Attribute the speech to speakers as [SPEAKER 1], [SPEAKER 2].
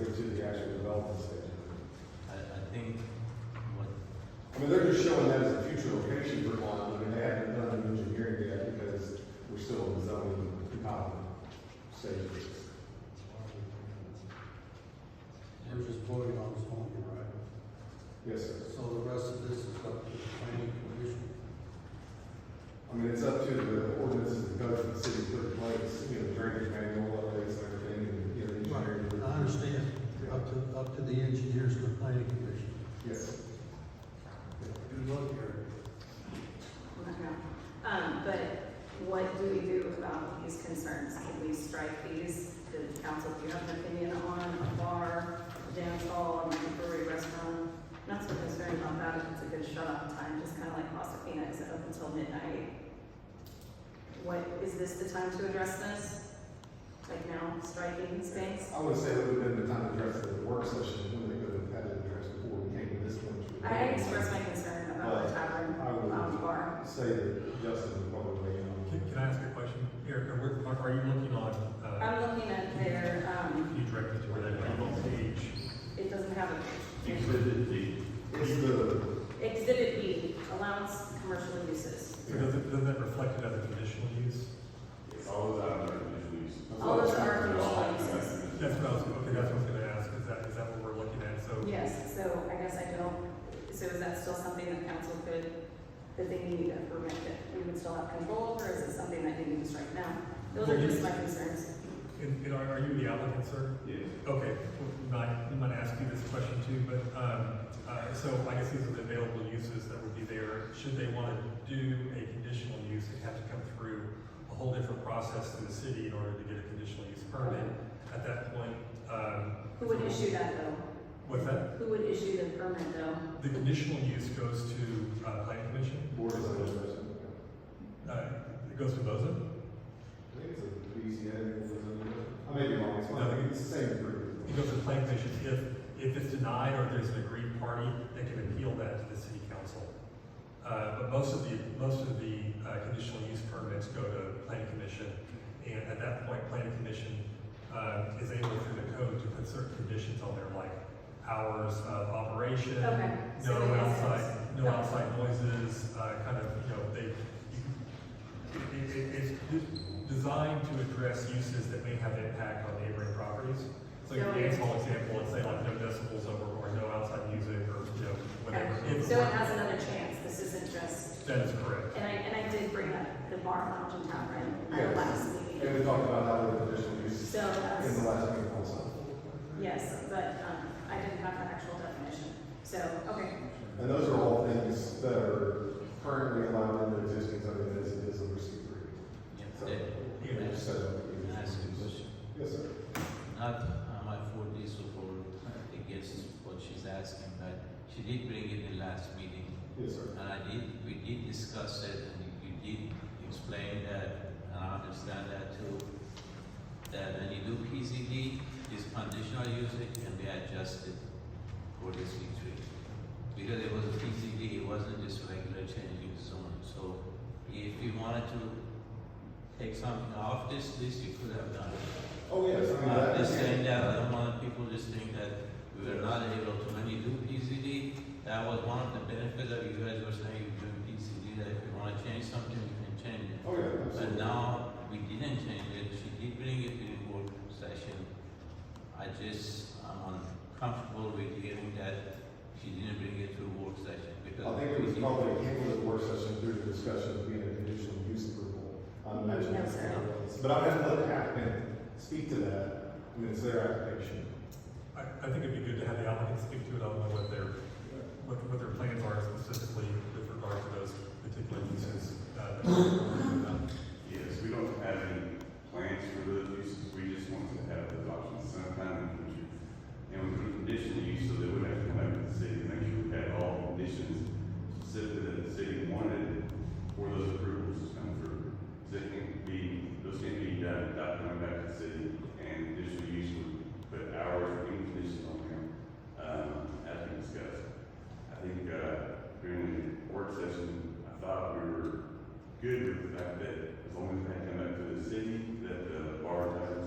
[SPEAKER 1] actual development stage.
[SPEAKER 2] I, I think what,
[SPEAKER 1] I mean, they're just showing that as a future location for one, I mean, they haven't done an engineering yet because we're still in the zoning development stage. of this.
[SPEAKER 3] We're just voting on this one, here, right?
[SPEAKER 1] Yes, sir.
[SPEAKER 3] So the rest of this is up to the planning commission.
[SPEAKER 1] I mean, it's up to the ordinances and codes that the city put in place, you know, drainage manual, updates, and everything, and, you know, engineering.
[SPEAKER 3] I understand, up to, up to the engineers and the planning commission.
[SPEAKER 1] Yes.
[SPEAKER 3] Good luck here.
[SPEAKER 4] Um, but what do we do about these concerns? Can we strike these? The council, do you have an opinion on a bar, a dance hall, a brewery restaurant? Not so concerned about that, if it's a good shut off time, just kind of like Wasapina, is it open until midnight? What, is this the time to address this? Like now, striking these things?
[SPEAKER 1] I would say it would have been the time to address the work session, when they could have had it addressed before we came to this one.
[SPEAKER 4] I expressed my concern about the tavern,
[SPEAKER 1] I would-
[SPEAKER 4] lounge bar.
[SPEAKER 1] Say that Justin would probably weigh in on.
[SPEAKER 5] Can, can I ask a question? Eric, are, we- are- are you looking on, uh,
[SPEAKER 4] I'm looking at their, um,
[SPEAKER 5] you directed to where that label page?
[SPEAKER 4] it doesn't have a.
[SPEAKER 6] Exhibit D.
[SPEAKER 1] It's the,
[SPEAKER 4] Exhibit B, allowance commercial uses.
[SPEAKER 5] So does it, doesn't that reflect it as a conditional use?
[SPEAKER 6] All those items are conditional use.
[SPEAKER 4] All those are
[SPEAKER 6] They're all
[SPEAKER 4] conditional uses.
[SPEAKER 6] conditional
[SPEAKER 5] That's what I was, okay, that's what I was gonna ask, is that, is that what we're looking at? So,
[SPEAKER 4] Yes, so I guess I don't, so is that still something that council could, that they need a permit that we would still have control over? Is it something that they need to strike now? Those are just my concerns.
[SPEAKER 5] and, and are, are you the applicant, sir?
[SPEAKER 6] Yes.
[SPEAKER 5] Okay, well, we might, we might ask you this question too, but, um, uh, so I guess these are the available uses that would be there. Should they want to do a conditional use, they have to come through a whole different process through the city in order to get a conditional use permit. At that point, um,
[SPEAKER 4] Who would issue that though?
[SPEAKER 5] what's that?
[SPEAKER 4] Who would issue the permit though?
[SPEAKER 5] The conditional use goes to, uh, planning commission,
[SPEAKER 1] board of supervisors.
[SPEAKER 5] uh, it goes to BOZA?
[SPEAKER 1] I think it's a BZA or something. I may be wrong, it's
[SPEAKER 5] No, I
[SPEAKER 1] fine,
[SPEAKER 5] think
[SPEAKER 1] it's the same group.
[SPEAKER 5] It goes to planning commission. If, if it's denied or there's an agreed party, they can appeal that to the city council. Uh, but most of the, most of the, uh, conditional use permits go to planning commission. And at that point, planning commission, uh, is able through the code to put certain conditions on there, like hours of operation.
[SPEAKER 4] Okay. so
[SPEAKER 5] No
[SPEAKER 4] it makes
[SPEAKER 5] outside,
[SPEAKER 4] sense.
[SPEAKER 5] no outside noises, uh, kind of, you know, they, it, it, it's de- designed to address uses that may have impact on neighboring properties. So your
[SPEAKER 4] So-
[SPEAKER 5] dance hall example, let's say like no decibels over, or no outside music, or, you know, whatever.
[SPEAKER 4] Okay.
[SPEAKER 5] It's-
[SPEAKER 4] So it has another chance. This isn't just
[SPEAKER 5] That is correct.
[SPEAKER 4] And I, and I did bring up the bar lounge in Tavern at the
[SPEAKER 1] Yes.
[SPEAKER 4] last
[SPEAKER 1] And
[SPEAKER 4] meeting.
[SPEAKER 1] we talked about how the conditional use
[SPEAKER 4] So uh,
[SPEAKER 1] in the
[SPEAKER 4] that's,
[SPEAKER 1] last meeting also.
[SPEAKER 4] yes, but, um, I didn't have the actual definition. So, okay,
[SPEAKER 1] And those are all things that are currently allowed in the existing zoning as it is under C
[SPEAKER 2] yeah,
[SPEAKER 1] three.
[SPEAKER 2] Dave,
[SPEAKER 5] Yeah,
[SPEAKER 2] can I ask-
[SPEAKER 1] So.
[SPEAKER 2] can I ask you a question?
[SPEAKER 1] Yes, sir.
[SPEAKER 2] Not, uh, am I for this or for against what she's asking, but she did bring it in last meeting.
[SPEAKER 1] Yes, sir.
[SPEAKER 2] And I did, we did discuss it, and you did explain that, and I understand that too. That when you do PCD, this conditional use, it can be adjusted for the C three. Because it was a PCD, it wasn't just regular changing zone, so if you wanted to take something off this list, you could have done it.
[SPEAKER 1] Oh, yes, I mean,
[SPEAKER 2] I'm
[SPEAKER 1] that.
[SPEAKER 2] just Uh, saying uh, that, I don't want people just think that we were not able to, when you do PCD, that was one of the benefits that you guys were saying, you do PCD, that if you wanna change something, you can change it.
[SPEAKER 1] Oh, yeah,
[SPEAKER 2] But
[SPEAKER 1] absolutely.
[SPEAKER 2] now, we didn't change it, she did bring it in board session. I just, I'm uncomfortable with hearing that she didn't bring it to work session, because.
[SPEAKER 1] I think it was
[SPEAKER 2] we-
[SPEAKER 1] probably handled at work session through the discussion of being a conditional use approval. I'm not sure
[SPEAKER 4] No,
[SPEAKER 1] that's
[SPEAKER 4] sir.
[SPEAKER 1] what it was. But I'm gonna let the applicant speak to that, and it's their application.
[SPEAKER 5] I, I think it'd be good to have the applicant speak to it, I don't know what their, what, what their plans are specifically with regard to those particular uses. uh, that we're talking about.
[SPEAKER 6] Yes, we don't have any plans for the um, uh,